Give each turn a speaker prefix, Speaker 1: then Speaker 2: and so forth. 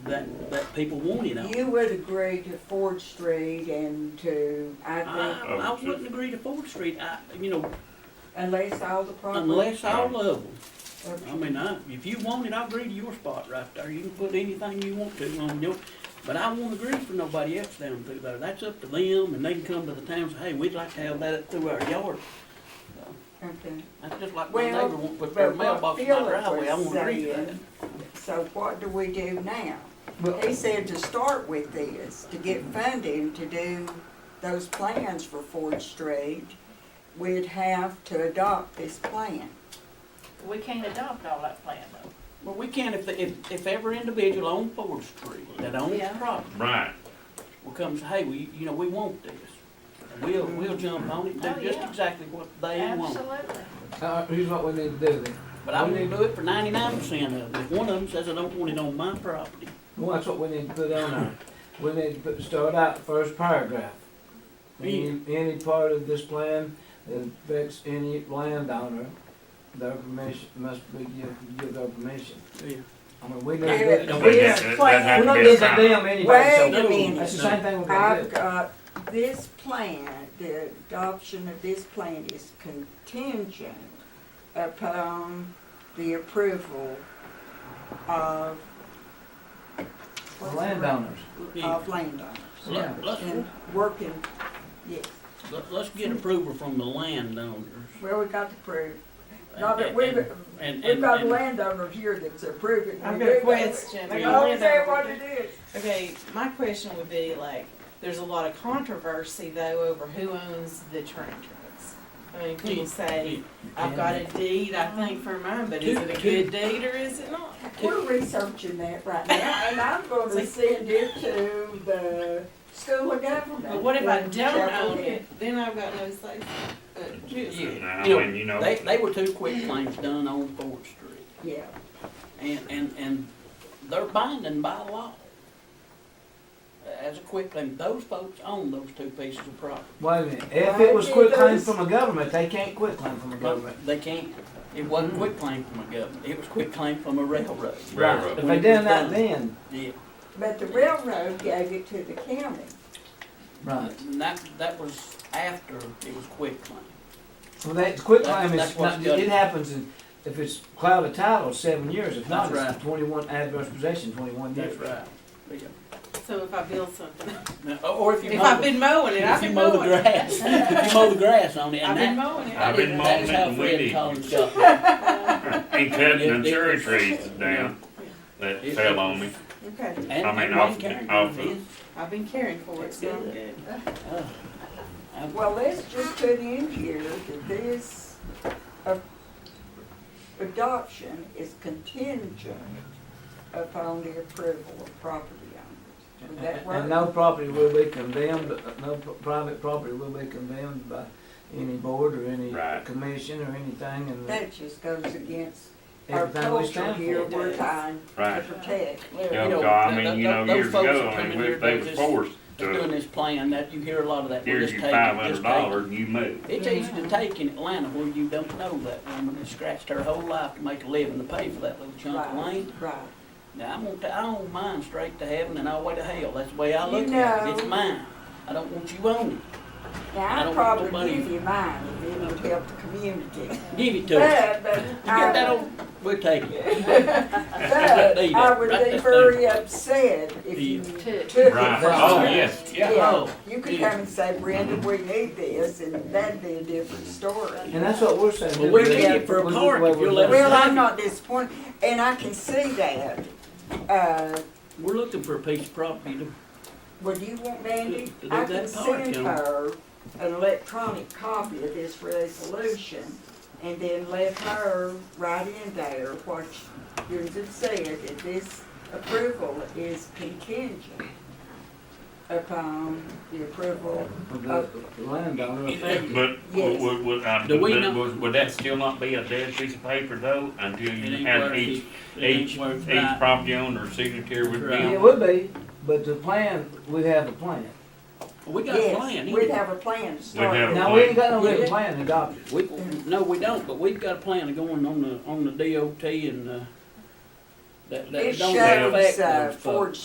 Speaker 1: that, that people want it on.
Speaker 2: You would agree to Ford Street and to, I
Speaker 1: I,
Speaker 2: think,
Speaker 1: I wouldn't agree to Ford Street, I, you know,
Speaker 2: unless all the property.
Speaker 1: unless all of them. I
Speaker 2: or-
Speaker 1: mean, I, if you want it, I agree to your spot right there, you can put anything you want to on your, but I won't agree for nobody else down through there, that's up to them, and they can come to the town and say, hey, we'd like to have that up through our yard.
Speaker 2: Okay.
Speaker 1: That's just like my
Speaker 2: Well,
Speaker 1: neighbor won't put
Speaker 2: but
Speaker 1: their
Speaker 2: what
Speaker 1: mailbox in my
Speaker 2: Philip
Speaker 1: driveway, I
Speaker 2: was
Speaker 1: won't agree to that.
Speaker 2: saying- So what do we do now? He said to start with this, to get funding to do those plans for Ford Street, we'd have to adopt this plan.
Speaker 3: We can't adopt all that plan though.
Speaker 1: Well, we can if, if, if every individual on Ford Street that owns
Speaker 3: Yeah.
Speaker 1: property
Speaker 4: Right,
Speaker 1: will come and say, hey, we, you know, we want this. And We'll, we'll jump on it,
Speaker 3: Oh,
Speaker 1: and do just
Speaker 3: yeah.
Speaker 1: exactly what they want.
Speaker 3: Absolutely.
Speaker 5: Uh, here's what we need to do then.
Speaker 1: But I wouldn't do it for ninety-nine percent of it. If one of them says I don't want it on my property,
Speaker 5: Well, that's what we need to put on there. We need to put, start out the first paragraph. Any, any part of this plan that affects any landowner, their permission, must be give, give their permission. I mean, we need
Speaker 2: Give
Speaker 5: to.
Speaker 2: it
Speaker 5: do-
Speaker 4: Wait,
Speaker 2: this
Speaker 4: that- that
Speaker 5: We're
Speaker 2: plan.
Speaker 4: happened.
Speaker 5: not gonna condemn
Speaker 2: Wait
Speaker 5: anybody,
Speaker 2: a
Speaker 1: No.
Speaker 5: so that's
Speaker 2: minute,
Speaker 5: the same thing we're gonna
Speaker 2: I've
Speaker 5: do.
Speaker 2: got, this plan, the adoption of this plan is contingent upon the approval of.
Speaker 5: The landowners.
Speaker 1: yeah.
Speaker 2: Of landowners.
Speaker 5: Yeah.
Speaker 1: Let- Let's,
Speaker 2: And working, yes,
Speaker 1: let- let's get approval from the landowners.
Speaker 2: well, we got to prove, not that
Speaker 1: And-
Speaker 2: we've,
Speaker 1: and-
Speaker 2: we've
Speaker 1: and-
Speaker 2: got
Speaker 1: and-
Speaker 2: landowners here that's approving.
Speaker 6: I've
Speaker 2: We
Speaker 6: got
Speaker 2: do
Speaker 6: a
Speaker 2: that.
Speaker 6: question.
Speaker 2: They
Speaker 6: Are
Speaker 2: don't
Speaker 6: you
Speaker 2: say
Speaker 6: landowner?
Speaker 2: what it is.
Speaker 6: Okay, my question would be like, there's a lot of controversy though over who owns the train tracks. I mean, people say, I've got a deed, I think for mine, but is it a good deed or is it not?
Speaker 2: We're researching that right now, and I'm gonna send it to the school of government.
Speaker 6: But what if I
Speaker 2: in
Speaker 6: don't own
Speaker 2: Chapel Hill.
Speaker 6: it, then I've got no say. Uh, just-
Speaker 4: I
Speaker 1: You know,
Speaker 4: mean, you know,
Speaker 1: They, they were two quick claims done on Ford Street.
Speaker 2: Yeah,
Speaker 1: And, and, and they're binding by law. As a quick claim, those folks own those two pieces of property.
Speaker 5: Wait a minute, if it was quit claim from a government, they can't quit claim from a government.
Speaker 1: But They can't, it wasn't quick claim from a government, it was quick claim from a railroad.
Speaker 4: railroad.
Speaker 5: If they done that then,
Speaker 1: Yeah,
Speaker 2: but the railroad gave it to the county.
Speaker 5: right.
Speaker 1: and that, that was after it was quick claim.
Speaker 5: Well, that quit
Speaker 1: That-
Speaker 5: claim
Speaker 1: that's
Speaker 5: is,
Speaker 1: what's
Speaker 5: not-
Speaker 1: got it.
Speaker 5: it happens in, if it's cloud of title, seven years, if not,
Speaker 1: That's
Speaker 5: it's twenty-one adverse possession, twenty-one years.
Speaker 1: Yeah.
Speaker 6: So if I build something,
Speaker 1: Now, Or if you
Speaker 6: if
Speaker 1: mow,
Speaker 6: I've
Speaker 1: the-
Speaker 6: been mowing it, I've
Speaker 1: if you
Speaker 6: been
Speaker 1: mow the
Speaker 6: mowing it.
Speaker 1: grass, if you mow the grass on it,
Speaker 6: I've
Speaker 1: and
Speaker 6: been
Speaker 1: that,
Speaker 6: mowing it.
Speaker 4: I've been
Speaker 1: that's
Speaker 4: mowing it
Speaker 1: how
Speaker 4: and we
Speaker 1: Fred
Speaker 4: didn't.
Speaker 1: Collins got
Speaker 4: and cutting the cherry trees down that fell on me.
Speaker 6: Okay,
Speaker 1: And-
Speaker 4: I mean,
Speaker 1: and
Speaker 4: off
Speaker 1: one
Speaker 4: the-
Speaker 1: carrying
Speaker 4: off the-
Speaker 1: his.
Speaker 6: I've been caring for it, so I'm good.
Speaker 1: Oh. I-
Speaker 2: Well, let's just put in here that this a- adoption is contingent upon the approval of property owners. Would that
Speaker 5: And
Speaker 2: work?
Speaker 5: no property will be condemned, uh, no p- private property will be condemned by any board or any
Speaker 4: Right.
Speaker 5: commission or anything, and
Speaker 2: That just goes against our
Speaker 5: everything we
Speaker 2: culture
Speaker 5: stand
Speaker 2: here,
Speaker 5: for.
Speaker 2: we're trying to
Speaker 4: Right.
Speaker 2: protect.
Speaker 1: Well,
Speaker 4: Yeah,
Speaker 1: you know,
Speaker 4: God, I
Speaker 1: th-
Speaker 4: mean, you
Speaker 1: th-
Speaker 4: know,
Speaker 1: those
Speaker 4: years
Speaker 1: folks
Speaker 4: ago,
Speaker 1: that
Speaker 4: I
Speaker 1: come
Speaker 4: mean,
Speaker 1: in
Speaker 4: we-
Speaker 1: here,
Speaker 4: they
Speaker 1: they're
Speaker 4: were
Speaker 1: just-
Speaker 4: forced
Speaker 1: they're doing
Speaker 4: to,
Speaker 1: this plan, that you hear a lot of that, we're
Speaker 4: here's
Speaker 1: just
Speaker 4: your
Speaker 1: taking,
Speaker 4: five
Speaker 1: just
Speaker 4: hundred
Speaker 1: taking.
Speaker 4: dollars and you move.
Speaker 1: It's easy to take in Atlanta where you don't know that woman that scratched her whole life to make a living to pay for that little chunk of
Speaker 2: Right,
Speaker 1: land.
Speaker 2: right.
Speaker 1: Now, I'm gonna, ta- I own mine straight to heaven and all the way to hell, that's the way I
Speaker 2: You
Speaker 1: look at it,
Speaker 2: know.
Speaker 1: it's mine, I don't want you owning I
Speaker 2: Now, I'd
Speaker 1: don't want
Speaker 2: probably
Speaker 1: nobody-
Speaker 2: give you mine if it would help the community.
Speaker 1: it, give it to us.
Speaker 2: But, but.
Speaker 1: You get that old, we'll take it,
Speaker 2: But
Speaker 1: They do.
Speaker 2: I would
Speaker 1: Right,
Speaker 2: be
Speaker 1: that's
Speaker 2: very upset if you
Speaker 1: Yeah.
Speaker 2: took
Speaker 3: Took.
Speaker 2: it from
Speaker 4: Right,
Speaker 2: us.
Speaker 4: oh, yes, yeah.
Speaker 2: Yeah,
Speaker 1: Oh,
Speaker 2: you could
Speaker 1: yeah.
Speaker 2: come and say, Brenda, we need this, and that'd be a different story.
Speaker 5: And that's what we're saying.
Speaker 1: Well, we
Speaker 5: We're
Speaker 1: need
Speaker 5: doing
Speaker 1: it for a
Speaker 5: we're doing
Speaker 1: park,
Speaker 5: what
Speaker 1: if
Speaker 5: we're
Speaker 1: you'll let
Speaker 5: doing.
Speaker 2: Well, I'm not disappointed, and I can see that. Uh,
Speaker 1: we're looking for a piece of property to,
Speaker 2: would you want,
Speaker 1: To-
Speaker 2: Mandy?
Speaker 1: to do
Speaker 2: I
Speaker 1: that
Speaker 2: can
Speaker 1: part,
Speaker 2: send
Speaker 1: Kim.
Speaker 2: her an electronic copy of this resolution, and then let her write in there what you just said, that this approval is contingent upon the approval
Speaker 5: Of the landowner.
Speaker 4: But would,
Speaker 2: Yes.
Speaker 4: would, would, uh,
Speaker 1: Do we
Speaker 4: but
Speaker 1: know-
Speaker 4: would- would that still not be a dead piece of paper though, until
Speaker 1: it
Speaker 4: you
Speaker 1: ain't
Speaker 4: have
Speaker 1: worth
Speaker 4: each,
Speaker 1: it, it
Speaker 4: each,
Speaker 1: ain't worth
Speaker 4: each
Speaker 1: that.
Speaker 4: property owner's signature would be
Speaker 1: Right.
Speaker 5: It
Speaker 4: on?
Speaker 5: would be, but the plan, we have a plan.
Speaker 1: We got a plan,
Speaker 2: Yes,
Speaker 1: anyway.
Speaker 2: we'd have a plan to start.
Speaker 4: have a
Speaker 5: Now, we ain't got no
Speaker 1: plan.
Speaker 5: written plan adopted.
Speaker 1: We, no, we don't, but we've got a plan of going on the, on the DOT and, uh, that, that
Speaker 2: It
Speaker 1: don't affect
Speaker 2: shows,
Speaker 1: those
Speaker 2: uh,
Speaker 1: folks.
Speaker 2: Ford